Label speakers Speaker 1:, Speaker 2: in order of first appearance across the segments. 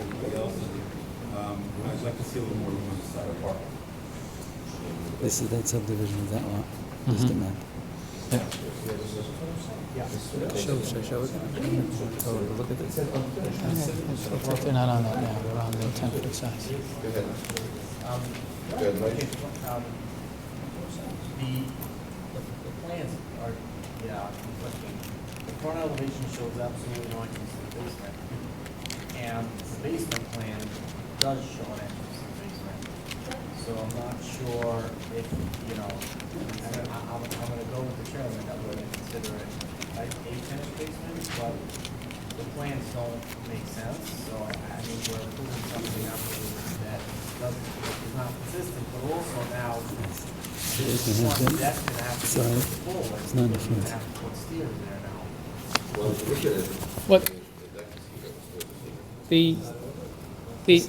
Speaker 1: Um, I'd like to see a little more room on the side of the park.
Speaker 2: This is that subdivision of that lot, just a map.
Speaker 3: Shows, I show it. Oh, look at this. Looks like they're not on that now, they're on the ten foot size.
Speaker 4: Go ahead. Go ahead, Mike.
Speaker 5: Um, The, the the plans are, yeah, conflicting. The front elevation shows absolutely no entrance to the basement. And the basement plan does show an entrance to the basement. So I'm not sure if, you know, I- I- I'm, I'm gonna go with the chairman that we're gonna consider it a a finished basement, but the plans don't make sense, so I, I mean, we're approving something absolutely that doesn't, is not consistent, but also now this
Speaker 2: Basement has
Speaker 5: one
Speaker 2: been-
Speaker 5: deck is gonna have to
Speaker 2: so
Speaker 5: be forward.
Speaker 2: it's not in the
Speaker 5: because you're gonna
Speaker 2: front.
Speaker 5: have to put stairs there now.
Speaker 4: Well, if you look at it.
Speaker 3: What-
Speaker 4: the deck is here, so it's here.
Speaker 3: The, the,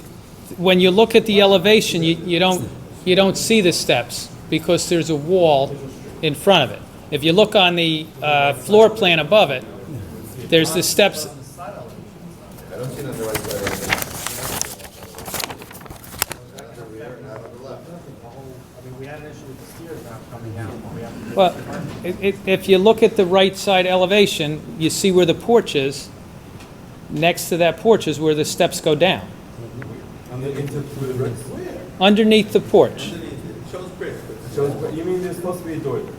Speaker 3: when you look at the elevation, you, you don't, you don't see the steps because there's a wall in front of it. If you look on the uh, floor plan above it, there's the steps,
Speaker 5: On the side elevation,
Speaker 4: I don't see it on the right side of the deck. Not on the rear, not on the left.
Speaker 5: the whole, I mean, we had an issue with the stairs not coming out, but we have to.
Speaker 3: well, i- i- if you look at the right side elevation, you see where the porch is. Next to that porch is where the steps go down,
Speaker 1: On the inter, through the bricks.
Speaker 3: underneath the porch.
Speaker 1: It shows bricks, but it shows, but you mean there's supposed to be a door there?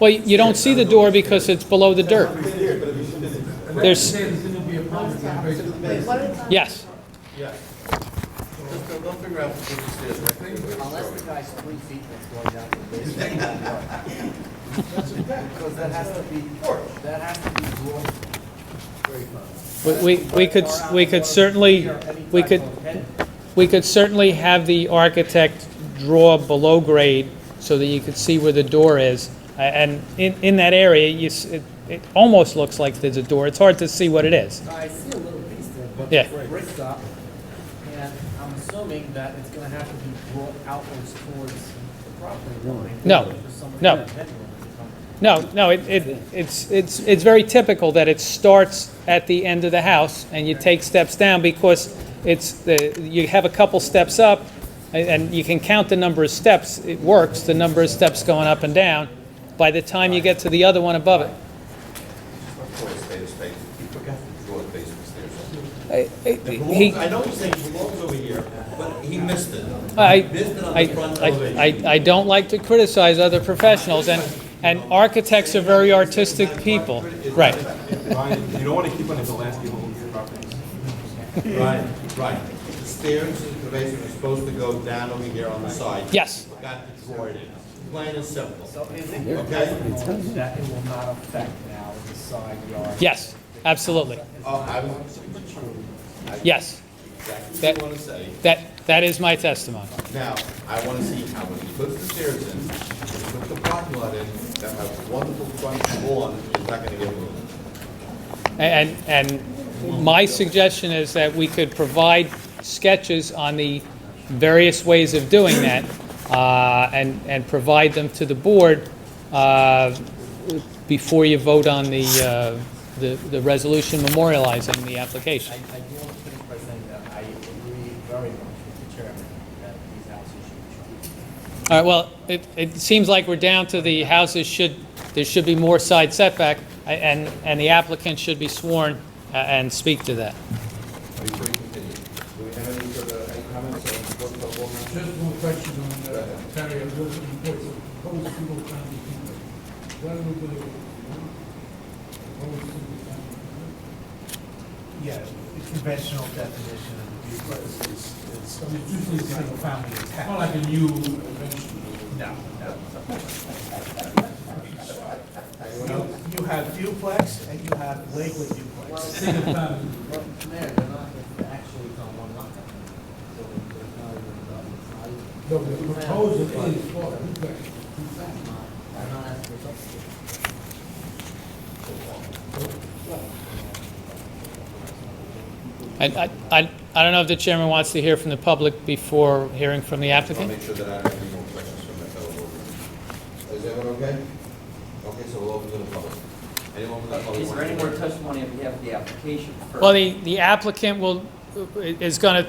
Speaker 3: Well, you don't see the door because it's below the dirt.
Speaker 1: It's there, but it shouldn't.
Speaker 3: There's,
Speaker 6: What is on
Speaker 3: yes.
Speaker 4: So don't figure out if this is the stairs.
Speaker 5: Unless the guy's three feet that's going down to the basement. it won't work. Because that has to be, that has to be dwarfed.
Speaker 3: We- We, we could, we could certainly, we could, we could certainly have the architect draw below grade so that you could see where the door is. A- And in, in that area, you, s- it, it almost looks like there's a door. It's hard to see what it is.
Speaker 5: I see a little piece there, but
Speaker 3: Yeah.
Speaker 5: the brick's up, and I'm assuming that it's gonna have to be brought outwards towards the property line.
Speaker 3: No.
Speaker 5: for somebody
Speaker 3: No.
Speaker 5: to bend over to
Speaker 3: No,
Speaker 5: come.
Speaker 3: no, it, it, it's, it's, it's very typical that it starts at the end of the house and you take steps down because it's the, you have a couple steps up and, and you can count the number of steps, it works, the number of steps going up and down. By the time you get to the other one above it.
Speaker 4: Call it space, space. You forgot to draw a space for stairs.
Speaker 3: I- I- He,
Speaker 1: I know you're saying it belongs over here, but he missed it.
Speaker 3: I,
Speaker 1: He missed it on
Speaker 3: I,
Speaker 1: the front elevation.
Speaker 3: I, I- I don't like to criticize other professionals and, and architects are very artistic people. Right.
Speaker 1: Ryan, you don't want to keep on the Alaska homes and properties.
Speaker 4: Right, right. The stairs in the basement are supposed to go down over here on the side.
Speaker 3: Yes.
Speaker 4: You Forgot to draw it in. Plain and simple.
Speaker 5: So is it
Speaker 4: Okay.
Speaker 5: possible that it will not affect now the side yard?
Speaker 3: Yes, absolutely.
Speaker 4: Oh, I was, I
Speaker 3: Yes,
Speaker 4: exactly
Speaker 3: That-
Speaker 4: what I want to say.
Speaker 3: that, that is my testimony.
Speaker 4: Now, I want to see how when he puts the stairs in, when he puts the parking lot in, that has wonderful front lawn, is not going to get moved.
Speaker 3: And, and my suggestion is that we could provide sketches on the various ways of doing that, uh, and, and provide them to the board uh, before you vote on the, uh, the the resolution memorializing the
Speaker 5: I, I
Speaker 3: application.
Speaker 5: do want to finish by saying that I agree very much with the chairman that these houses should be shown.
Speaker 3: All right, well, it, it seems like we're down to the houses should, there should be more side setback, a- and, and the applicant should be sworn uh, and speak to that.
Speaker 4: Before you continue, do we have any further, any comments on the board of alderman?
Speaker 7: Just one question on uh, Terry, I'm looking for the proposed single-family unit. When will the proposed single-family unit?
Speaker 8: Yeah, the conventional definition of a duplex is, is usually single-family
Speaker 7: Not
Speaker 8: attached.
Speaker 7: like a new conventional.
Speaker 8: No, no. You- You have duplex and you have Lakewood duplex.
Speaker 7: Single-family.
Speaker 5: Well, Mayor, they're not, they're actually on one lot. So there's not even a-
Speaker 7: No, the proposal is for a duplex.
Speaker 5: I'm not asking for something.
Speaker 3: And I, I, I don't know if the chairman wants to hear from the public before hearing from the
Speaker 4: I'll
Speaker 3: applicant?
Speaker 4: make sure that I don't have any more questions from my fellow board members. Is everyone okay? Okay, so we'll open to the public. Anyone from the public?
Speaker 9: Is there
Speaker 4: want to-
Speaker 9: any more testimony on behalf of the application first?
Speaker 3: Well, the, the applicant will, is gonna